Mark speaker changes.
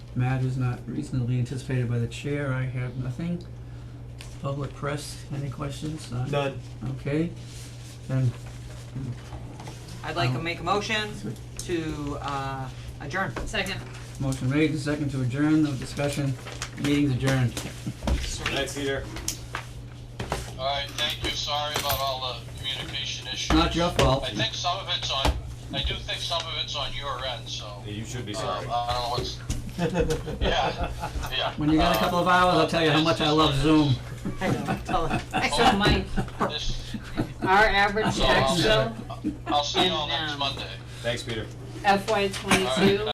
Speaker 1: Matt is not reasonably anticipated by the chair, I have nothing. Public press, any questions? None?
Speaker 2: None.
Speaker 1: Okay, then,
Speaker 3: I'd like to
Speaker 1: Um,
Speaker 3: make a motion to, uh, adjourn.
Speaker 4: Second.
Speaker 1: motion made, and second to adjourn, no discussion, meeting's adjourned.
Speaker 2: Thanks, Peter.
Speaker 5: Alright, thank you, sorry about all the communication issues.
Speaker 1: Not your fault.
Speaker 5: I think some of it's on, I do think some of it's on your end, so, um,
Speaker 2: You should be
Speaker 5: I
Speaker 2: sorry.
Speaker 5: don't know what's, yeah, yeah.
Speaker 1: When you got a couple of hours, I'll tell you how much I love Zoom.
Speaker 3: I know, tell her.
Speaker 4: So Mike,
Speaker 5: This,
Speaker 4: our average
Speaker 5: So,
Speaker 4: tax bill
Speaker 5: I'll see you all
Speaker 4: And,
Speaker 5: next
Speaker 4: um,
Speaker 5: Monday.
Speaker 2: Thanks, Peter.
Speaker 4: FY
Speaker 5: All right,
Speaker 4: twenty-two